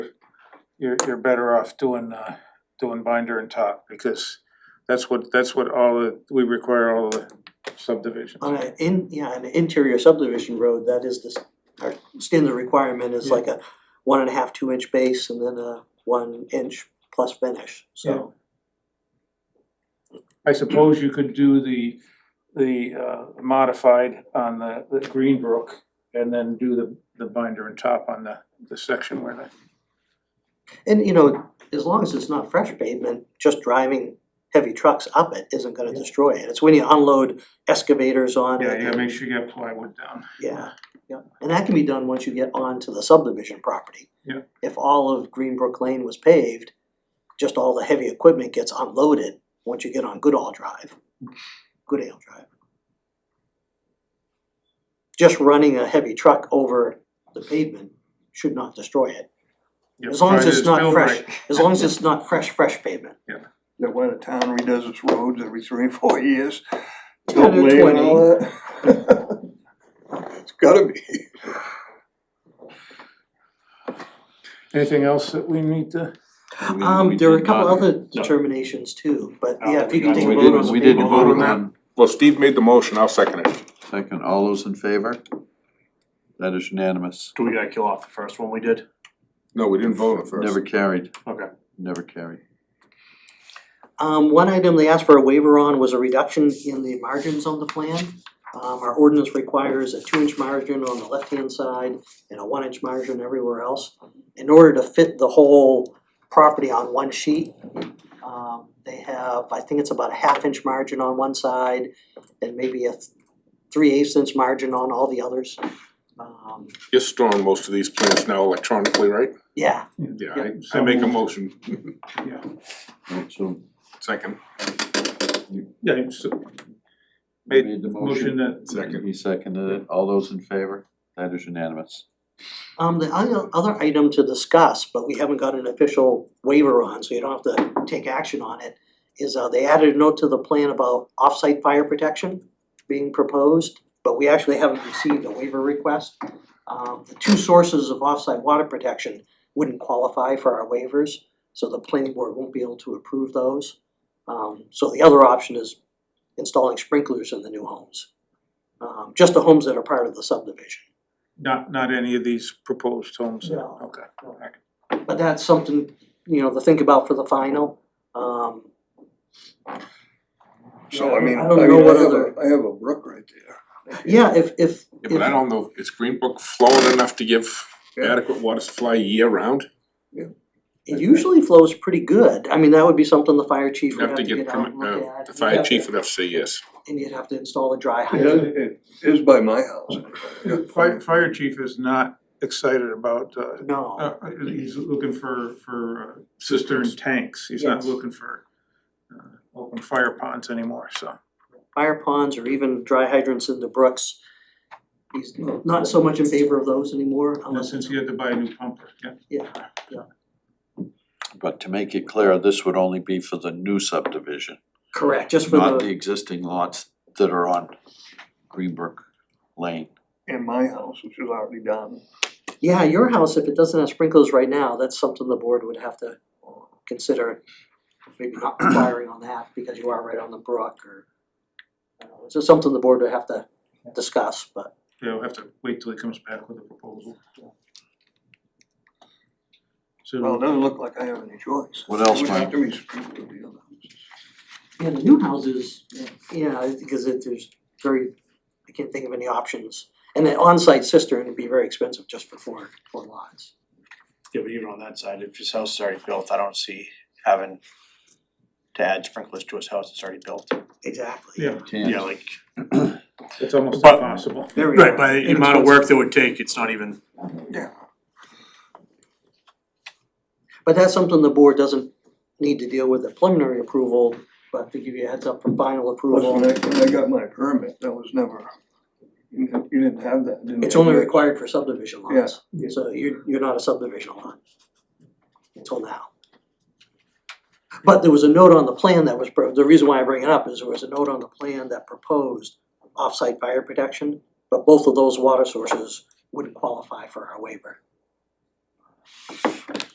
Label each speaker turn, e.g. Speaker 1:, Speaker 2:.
Speaker 1: you're you're better off doing uh doing binder and top because that's what that's what all the, we require all the subdivisions.
Speaker 2: On an in, yeah, an interior subdivision road, that is this, our standard requirement is
Speaker 1: Yeah.
Speaker 2: like a one and a half, two inch base and then a one inch plus finish, so.
Speaker 1: I suppose you could do the the uh modified on the the Greenbrook and then do the the binder and top on the the section where the
Speaker 2: And you know, as long as it's not fresh pavement, just driving heavy trucks up it isn't gonna
Speaker 1: Yeah.
Speaker 2: destroy it. It's when you unload excavators on it.
Speaker 1: yeah, you gotta
Speaker 2: and-
Speaker 1: make sure you got plywood down.
Speaker 2: Yeah, yeah, and that can be done once you get onto the subdivision property.
Speaker 1: Yeah.
Speaker 2: If all of Greenbrook Lane was paved, just all the heavy equipment gets unloaded once you get on Goodall Drive, Goodale Drive. Just running a heavy truck over the pavement should not destroy it,
Speaker 1: Yeah,
Speaker 2: As long as
Speaker 1: provided
Speaker 2: it's not
Speaker 1: built
Speaker 2: fresh.
Speaker 1: right.
Speaker 2: as long as it's not fresh, fresh pavement.
Speaker 3: that when a town redoes its roads every three, or four years.
Speaker 2: 10 or
Speaker 3: don't lay it all out. It's gotta be.
Speaker 1: Anything else that we need to?
Speaker 4: We- we
Speaker 2: Um, there are a
Speaker 4: did
Speaker 2: couple
Speaker 4: not-
Speaker 2: other determinations too, but
Speaker 1: Oh,
Speaker 2: yeah, if
Speaker 1: we
Speaker 2: you could
Speaker 1: got-
Speaker 2: take a
Speaker 4: We
Speaker 2: vote on
Speaker 4: did,
Speaker 2: the
Speaker 4: we did
Speaker 2: pavement.
Speaker 4: vote
Speaker 5: that.
Speaker 4: on,
Speaker 5: Well, Steve made the motion, I'll second it.
Speaker 4: second, all those in favor? That is unanimous,
Speaker 6: Do we gotta kill off the first one we did?
Speaker 5: No, we didn't vote on it first.
Speaker 4: never carried,
Speaker 6: Okay.
Speaker 4: never carried.
Speaker 2: Um, one item they asked for a waiver on was a reduction in the margins on the plan. Um, our ordinance requires a two inch margin on the left hand side and a one inch margin everywhere else. In order to fit the whole property on one sheet, um, they have, I think it's about a half inch margin on one side and maybe a three eighths inch margin on all the others. Um,
Speaker 5: You're storing most of these plans now electronically, right?
Speaker 2: yeah,
Speaker 5: Yeah,
Speaker 2: Yeah.
Speaker 5: I, I make a motion,
Speaker 4: Alright, So
Speaker 5: second.
Speaker 1: Yeah, it's-
Speaker 4: we
Speaker 1: Made
Speaker 4: made the
Speaker 1: motion
Speaker 4: motion,
Speaker 1: that
Speaker 5: Second.
Speaker 4: he seconded it, all those in favor? That is unanimous.
Speaker 2: Um, the other, other item to discuss, but we haven't got an official waiver on, so you don't have to take action on it, is uh, they added a note to the plan about off-site fire protection being proposed, but we actually haven't received a waiver request. Um, the two sources of off-site water protection wouldn't qualify for our waivers, so the planning board won't be able to approve those. Um, so the other option is installing sprinklers in the new homes, um, just the homes that are part of the subdivision.
Speaker 1: not not any of these proposed homes, then?
Speaker 2: No.
Speaker 1: okay.
Speaker 2: But that's something, you know, to think about for the final, um.
Speaker 3: So I mean, I
Speaker 2: I don't
Speaker 3: mean,
Speaker 2: know
Speaker 3: I
Speaker 2: what
Speaker 3: have
Speaker 2: other-
Speaker 3: a, I have a brook right there.
Speaker 2: Yeah, if if
Speaker 5: Yeah, but I
Speaker 2: if,
Speaker 5: don't know, is Greenbrook flowing enough to give
Speaker 3: Yeah.
Speaker 5: adequate water supply year round?
Speaker 2: it usually flows pretty good, I mean, that would be something the fire chief
Speaker 5: You
Speaker 2: would
Speaker 5: have to get,
Speaker 2: get out and
Speaker 5: permi-
Speaker 2: look
Speaker 5: uh,
Speaker 2: at.
Speaker 5: the
Speaker 2: You'd
Speaker 5: fire
Speaker 2: have
Speaker 5: chief
Speaker 2: to-
Speaker 5: would have to say yes.
Speaker 2: And you'd have to install a dry
Speaker 3: It
Speaker 2: hydrant,
Speaker 3: is, it is by my house.
Speaker 1: Fire fire chief is not excited about uh
Speaker 2: no,
Speaker 1: uh he's looking for for uh, cistern tanks, he's not
Speaker 2: Yes.
Speaker 1: looking for uh open fire ponds anymore, so.
Speaker 2: fire ponds or even dry hydrants in the brooks. He's not so much in favor of those anymore
Speaker 1: And
Speaker 2: unless,
Speaker 1: since he had to buy a new pumper, yeah.
Speaker 2: yeah,
Speaker 4: But to make it clear, this would only be for the new subdivision,
Speaker 2: correct, just for
Speaker 4: not the
Speaker 2: the,
Speaker 4: existing lots that are on Greenbrook Lane.
Speaker 3: In my house, which is already done.
Speaker 2: yeah, your house, if it doesn't have sprinklers right now, that's something the board would have to consider. Maybe not firing on that because you are right on the brook or, uh, it's just something the board would have to discuss, but.
Speaker 1: Yeah, we'll have to wait till he comes back with a proposal.
Speaker 3: Well, it
Speaker 1: So
Speaker 3: doesn't look like I have any choice.
Speaker 4: What else,
Speaker 3: It would have
Speaker 4: Mike?
Speaker 3: to be sprinkled with the other houses.
Speaker 2: Yeah, the new houses, yeah, it's because it, there's very, I can't think of any options. And an on-site cistern would be very expensive just for four, four lots.
Speaker 6: Yeah, but even on that side, if his house is already built, I don't see having to add sprinklers to his house that's already built.
Speaker 2: Exactly.
Speaker 1: yeah,
Speaker 6: Yeah, like.
Speaker 1: it's almost
Speaker 6: But-
Speaker 1: impossible.
Speaker 2: Very
Speaker 6: the amount of work that would take, it's not even.
Speaker 2: But that's something the board doesn't need to deal with at preliminary approval, but to give you a heads up for final
Speaker 3: Plus, when
Speaker 2: approval.
Speaker 3: I, when I got my permit, that was never, you didn't- you didn't have that, didn't you?
Speaker 2: It's only required for subdivision
Speaker 3: Yeah.
Speaker 2: lots, so you're, you're not a subdivision lot. Until now. But there was a note on the plan that was, pro- the reason why I bring it up is there was a note on the plan that proposed off-site fire protection, but both of those water sources wouldn't qualify for our waiver.